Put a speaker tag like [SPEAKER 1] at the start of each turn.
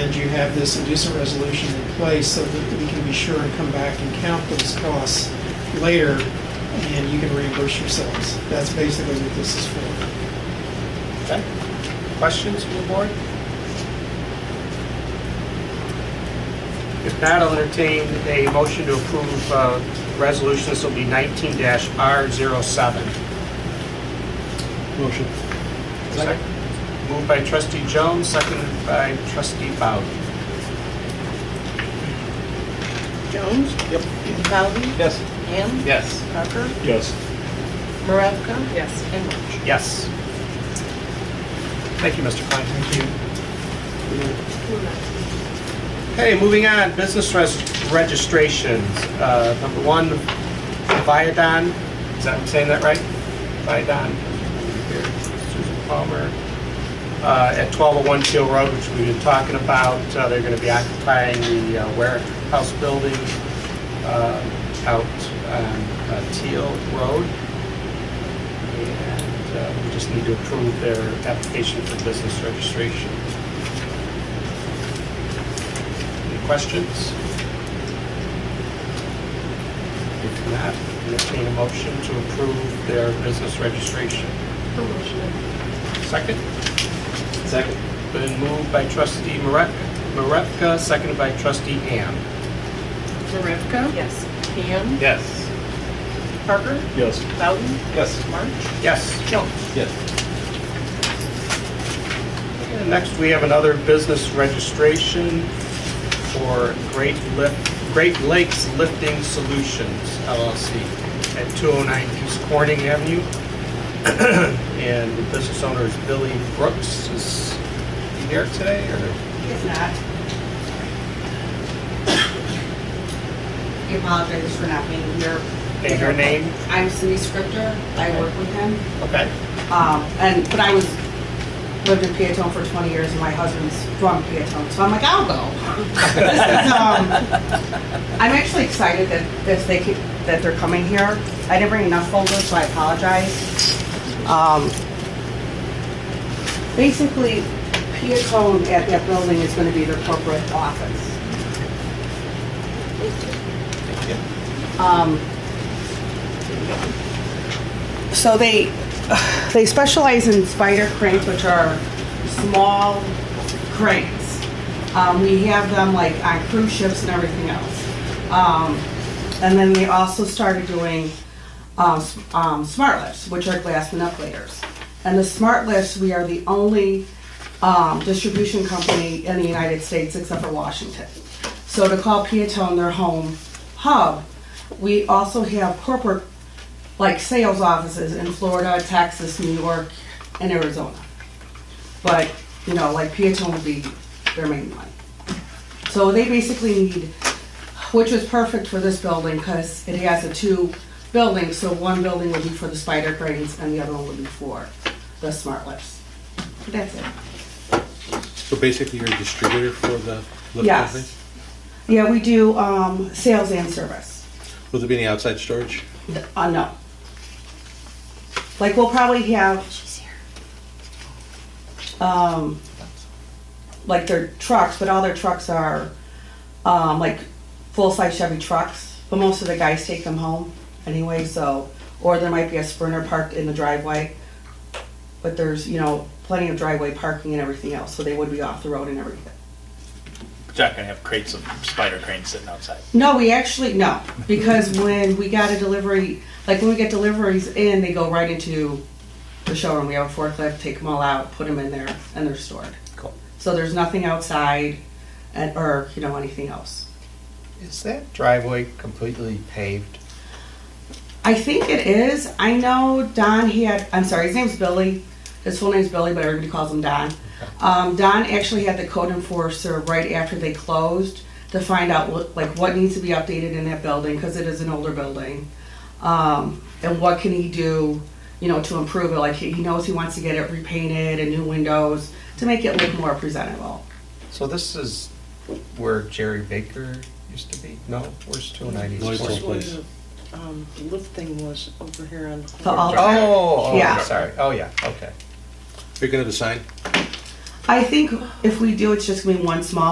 [SPEAKER 1] recommend you have this inducement resolution in place so that we can be sure and come back and count those costs later, and you can reimburse yourselves. That's basically what this is for.
[SPEAKER 2] Okay. Questions from the board? If not, I'll entertain a motion to approve uh, resolution. This will be 19-R07.
[SPEAKER 3] Motion.
[SPEAKER 2] Second. Moved by trustee Jones, seconded by trustee Bowden.
[SPEAKER 4] Jones?
[SPEAKER 3] Yep.
[SPEAKER 4] Bowden?
[SPEAKER 3] Yes.
[SPEAKER 4] Ham?
[SPEAKER 2] Yes.
[SPEAKER 4] Parker?
[SPEAKER 3] Yes.
[SPEAKER 4] Maravka? Yes. And March?
[SPEAKER 2] Yes. Thank you, Mr. Klein. Thank you. Okay, moving on, business res- registrations. Uh, Number one, Viadon, is that, I'm saying that right? Viadon. Susan Palmer, uh, at 1201 Teal Road, which we've been talking about. Uh, They're going to be occupying the uh, Ware House building uh, out on uh, Teal Road. And uh, we just need to approve their application for business registration. Any questions? If not, entertain a motion to approve their business registration. Second?
[SPEAKER 3] Second.
[SPEAKER 2] Been moved by trustee Marek- Marevka, seconded by trustee Ham.
[SPEAKER 4] Maravka? Yes. Ham?
[SPEAKER 2] Yes.
[SPEAKER 4] Parker?
[SPEAKER 3] Yes.
[SPEAKER 4] Bowden?
[SPEAKER 3] Yes.
[SPEAKER 4] March?
[SPEAKER 2] Yes.
[SPEAKER 4] Jones?
[SPEAKER 3] Yes.
[SPEAKER 2] And Next, we have another business registration for Great Lif- Great Lakes Lifting Solutions LLC at 209 East Corning Avenue. And the business owner is Billy Brooks. Is he here today or?
[SPEAKER 5] If not. We apologize for not being here.
[SPEAKER 2] And your name?
[SPEAKER 5] I'm Cindy Scripter. I work with him.
[SPEAKER 2] Okay.
[SPEAKER 5] Um, and, but I was, lived in Peatone for 20 years and my husband's from Peatone, so I'm like, I'll go. This is, um, I'm actually excited that, that they could, that they're coming here. I didn't bring enough folders, so I apologize. Um, basically, Peatone at that building is gonna be their corporate office. Um, so they they specialize in spider cranes, which are small cranes. Um, we have them like on cruise ships and everything else. Um, and then they also started doing uh, s- um, smart lifts, which are glass manipulators. And the smart lifts, we are the only um, distribution company in the United States except for Washington. So to call Peatone their home hub, we also have corporate like sales offices in Florida, Texas, New York, and Arizona. But, you know, like Peatone would be their main one. So they basically need, which was perfect for this building because it has the two buildings. So one building would be for the spider cranes and the other one would be for the smart lifts. That's it.
[SPEAKER 3] So basically, you're a distributor for the lift
[SPEAKER 5] Yes.
[SPEAKER 3] company?
[SPEAKER 5] Yeah, we do, um, sales and service.
[SPEAKER 3] Will there be any outside storage?
[SPEAKER 5] Uh, no. Like, we'll probably have. Um, like their trucks, but all their trucks are, um, like full-size Chevy trucks, but most of the guys take them home anyway, so, or there might be a Sprinter parked in the driveway. But there's, you know, plenty of driveway parking and everything else, so they would be off the road and everything.
[SPEAKER 6] You're not gonna have crates of spider cranes sitting outside.
[SPEAKER 5] No, we actually, no, because when we got a delivery, like when we get deliveries in, they go right into the showroom. We have a forklift, take them all out, put them in there, and they're stored.
[SPEAKER 2] Cool.
[SPEAKER 5] So there's nothing outside and, or, you know, anything else.
[SPEAKER 2] Is that driveway completely paved?
[SPEAKER 5] I think it is. I know Don, he had, I'm sorry, his name's Billy. His full name's Billy, but everybody calls him Don. Um, Don actually had the code enforcer right after they closed to find out what, like, what needs to be updated in that building, because it is an older building. Um, and what can he do, you know, to improve it? Like, he he knows he wants to get it repainted and new windows to make it look more presentable.
[SPEAKER 2] So this is where Jerry Baker used to be? No, where's 290
[SPEAKER 3] Lloyd's
[SPEAKER 2] East
[SPEAKER 3] Hall.
[SPEAKER 2] Corner?
[SPEAKER 3] Place.
[SPEAKER 4] Um, the lift thing was over here on.
[SPEAKER 5] The altar.
[SPEAKER 2] Oh, oh,
[SPEAKER 5] Yeah.
[SPEAKER 2] I'm sorry. Oh, yeah, okay.
[SPEAKER 3] You're gonna have a sign?
[SPEAKER 5] I think if we do, it's just gonna be one small